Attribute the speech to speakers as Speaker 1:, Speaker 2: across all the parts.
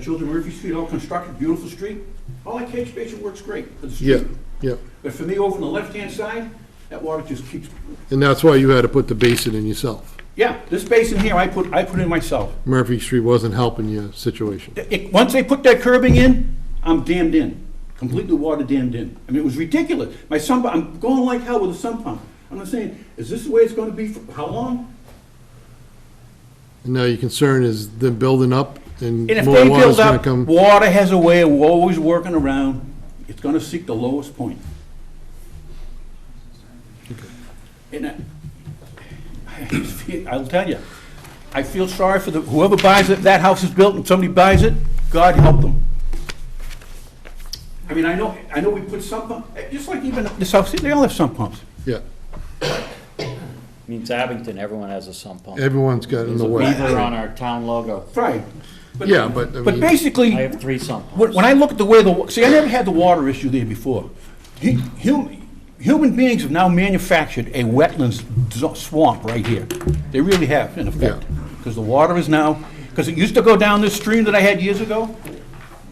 Speaker 1: Children Murphy Street, all constructed, beautiful street. All that catch basin works great for the
Speaker 2: Yeah,
Speaker 1: street.
Speaker 2: yeah,
Speaker 1: But for me, over on the left-hand side, that water just keeps,
Speaker 2: and that's why you had to put the basin in yourself.
Speaker 1: yeah, this basin here, I put, I put in myself.
Speaker 2: Murphy Street wasn't helping your situation.
Speaker 1: It- once they put that curbing in, I'm dammed in, completely water dammed in. I mean, it was ridiculous. My sun, pump- I'm going like hell with a sun pump. I'm not saying, is this the way it's gonna be for, how long?
Speaker 2: And Now, your concern is them building up
Speaker 1: And
Speaker 2: and
Speaker 1: if
Speaker 2: more
Speaker 1: they
Speaker 2: water's
Speaker 1: build
Speaker 2: gonna
Speaker 1: up,
Speaker 2: come.
Speaker 1: water has a way of always working around, it's gonna seek the lowest point. And I, I just feel- I'll tell you, I feel sorry for the, whoever buys it, that house is built and somebody buys it, God help them. I mean, I know, I know we put sump pump, eh, just like even the South City, they all have sump pumps.
Speaker 2: Yeah,
Speaker 3: I mean, it's Abington, everyone has a sump pump.
Speaker 2: everyone's got in
Speaker 3: There's
Speaker 2: the
Speaker 3: a
Speaker 2: way.
Speaker 3: beaver on our town logo.
Speaker 1: Right.
Speaker 2: Yeah, but I
Speaker 1: But
Speaker 2: mean,
Speaker 1: basically.
Speaker 3: I have three sump
Speaker 1: When,
Speaker 3: pumps.
Speaker 1: when I look at the way the, wa- see, I never had the water issue there before. Hu- Human, human beings have now manufactured a wetlands zo- swamp right here. They really have, in effect. Because the water is now, because it used to go down this stream that I had years ago,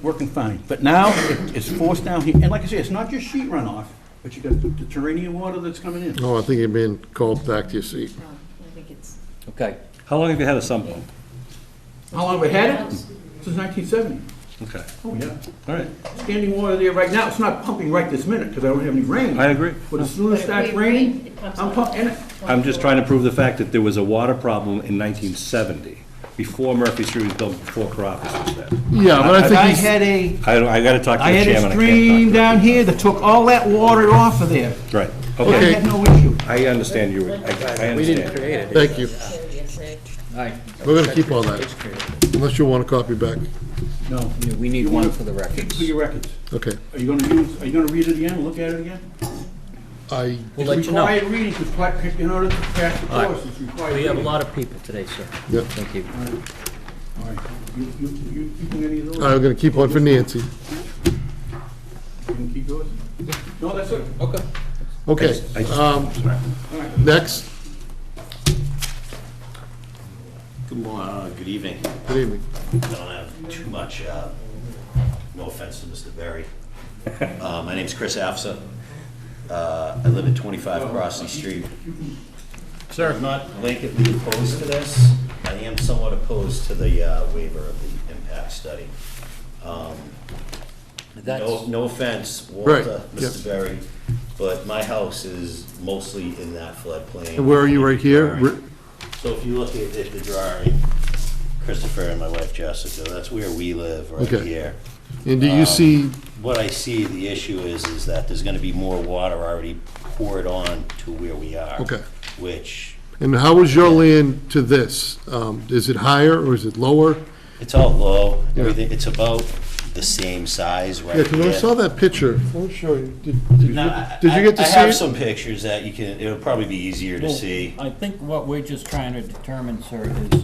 Speaker 1: working fine. But now, it- it's forced down here. And like I say, it's not just sheet runoff, but you got the terrain water that's coming in.
Speaker 2: oh, I think you're being called back to your seat.
Speaker 4: No, I think it's,
Speaker 3: Okay,
Speaker 5: How long have you had a sump pump?
Speaker 1: How long have we had it? Since 1970.
Speaker 5: Okay,
Speaker 1: Oh, yeah.
Speaker 5: all right,
Speaker 1: Standing water there right now, it's not pumping right this minute because I don't have any rain.
Speaker 5: I agree.
Speaker 1: But as soon as it starts
Speaker 4: Wait, wait,
Speaker 1: raining,
Speaker 4: it pumps
Speaker 1: I'm
Speaker 4: up.
Speaker 1: pumping,
Speaker 5: I'm just trying to prove the fact that there was a water problem in 1970, before Murphy Street was built, before Caroffus was there.
Speaker 2: Yeah, but I
Speaker 1: But
Speaker 2: think
Speaker 1: I
Speaker 2: he's,
Speaker 1: had a,
Speaker 5: I, don't- I gotta talk to
Speaker 1: I
Speaker 5: the
Speaker 1: had a
Speaker 5: chairman.
Speaker 1: stream
Speaker 5: can't
Speaker 1: down here that took all that water off of there.
Speaker 5: talk to- Right,
Speaker 1: I
Speaker 5: okay,
Speaker 1: had no issue.
Speaker 5: I understand you, I, I understand.
Speaker 2: thank you.
Speaker 3: all right,
Speaker 2: We're gonna keep all that, unless you want a copy back.
Speaker 1: No,
Speaker 3: we need one for the records.
Speaker 1: for your records.
Speaker 2: Okay,
Speaker 1: Are you gonna use, are you gonna read it again, look at it again?
Speaker 2: I,
Speaker 3: We'll let you know.
Speaker 1: It's required reading, 'cause pla- in order to pass the
Speaker 3: All right.
Speaker 1: course, it's required
Speaker 3: We
Speaker 1: reading.
Speaker 3: have a lot of people today, sir.
Speaker 2: yeah,
Speaker 3: Thank you.
Speaker 1: All right. You, you, you keeping any of those?
Speaker 3: Uh,
Speaker 2: I'm gonna keep one for Nancy.
Speaker 1: You can keep yours? No, that's it. Okay.
Speaker 2: Okay, um, next,
Speaker 6: Good morning, good evening.
Speaker 2: good evening.
Speaker 6: I don't have too much, uh, no offense to Mr. Berry. Uh, My name's Chris Afsa. Uh, I live at 25 Crossley Street. Sir. I'm not blanketly opposed to this. I am somewhat opposed to the uh, waiver of the impact study. No,
Speaker 3: That's,
Speaker 6: no offense,
Speaker 2: Right,
Speaker 6: Walter,
Speaker 2: yes.
Speaker 6: Mr. Berry, but my house is mostly in that floodplain.
Speaker 2: And where are you, right here? Re-
Speaker 6: So if you look at at the drawing, Christopher and my wife Jessica, that's where we live, right
Speaker 2: Okay.
Speaker 6: here.
Speaker 2: And do you see,
Speaker 6: What I see the issue is, is that there's gonna be more water already poured on to where we are.
Speaker 2: Okay.
Speaker 6: Which,
Speaker 2: and how is your land to this? Um, is it higher or is it lower?
Speaker 6: it's all low,
Speaker 2: Yeah.
Speaker 6: everything, it's about the same size right
Speaker 2: Yeah,
Speaker 6: here.
Speaker 2: because I saw that picture. I'll show you. Did did you
Speaker 6: No, I-
Speaker 2: did you get to
Speaker 6: I-
Speaker 2: see
Speaker 6: I have
Speaker 2: it?
Speaker 6: some pictures that you can, it'll probably be easier to
Speaker 3: Well,
Speaker 6: see.
Speaker 3: I think what we're just trying to determine, sir, is,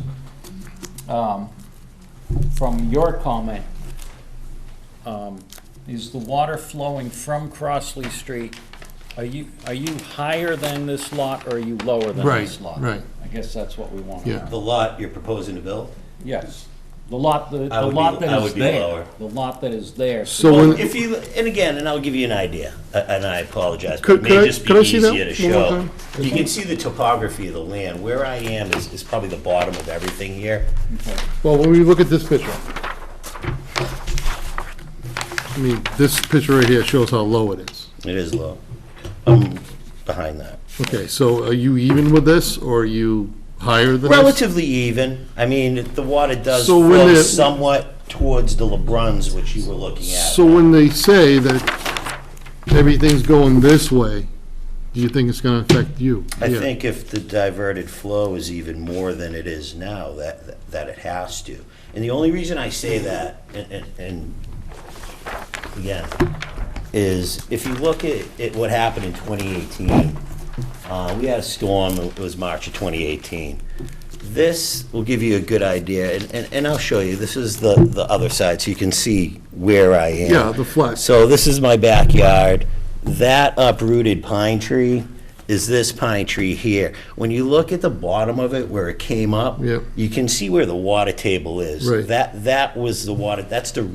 Speaker 3: um, from your comment, um, is the water flowing from Crossley Street, are you, are you higher than this lot or are you lower than
Speaker 2: Right,
Speaker 3: this lot?
Speaker 2: right.
Speaker 3: I guess that's what we want to
Speaker 2: Yeah.
Speaker 3: know.
Speaker 6: The lot you're proposing to build?
Speaker 3: Yes, the lot, the
Speaker 6: I
Speaker 3: the
Speaker 6: would be-
Speaker 3: lot
Speaker 6: I
Speaker 3: that is
Speaker 6: would be
Speaker 3: there,
Speaker 6: lower.
Speaker 3: the lot that is there.
Speaker 2: So
Speaker 6: Well,
Speaker 2: when,
Speaker 6: if you, and again, and I'll give you an idea, a- and I apologize, but
Speaker 2: Could-
Speaker 6: it
Speaker 2: could I-
Speaker 6: may just be
Speaker 2: could I see that
Speaker 6: easier to
Speaker 2: one more
Speaker 6: show.
Speaker 2: time?
Speaker 6: You can see the topography of the land. Where I am is, is probably the bottom of everything here.
Speaker 2: well, when we look at this picture. I mean, this picture right here shows how low it is.
Speaker 6: It is low. I'm behind that.
Speaker 2: Okay, so are you even with this or are you higher than this?
Speaker 6: Relatively even. I mean, the water does
Speaker 2: So when
Speaker 6: flow
Speaker 2: it-
Speaker 6: somewhat towards the LeBruns, which you were looking at.
Speaker 2: So when they say that everything's going this way, do you think it's gonna affect you?
Speaker 6: I
Speaker 2: Yeah.
Speaker 6: think if the diverted flow is even more than it is now, that, that it has to. And the only reason I say that, and- and, and, again, is if you look at, at what happened in 2018, uh, we had a storm, it was March of 2018. This will give you a good idea, and, and, and I'll show you, this is the, the other side, so you can see where I am.
Speaker 2: Yeah, the flag.
Speaker 6: So this is my backyard. That uprooted pine tree is this pine tree here. When you look at the bottom of it where it came up,
Speaker 2: Yep.
Speaker 6: you can see where the water table is.
Speaker 2: Right.
Speaker 6: That, that was the water, that's the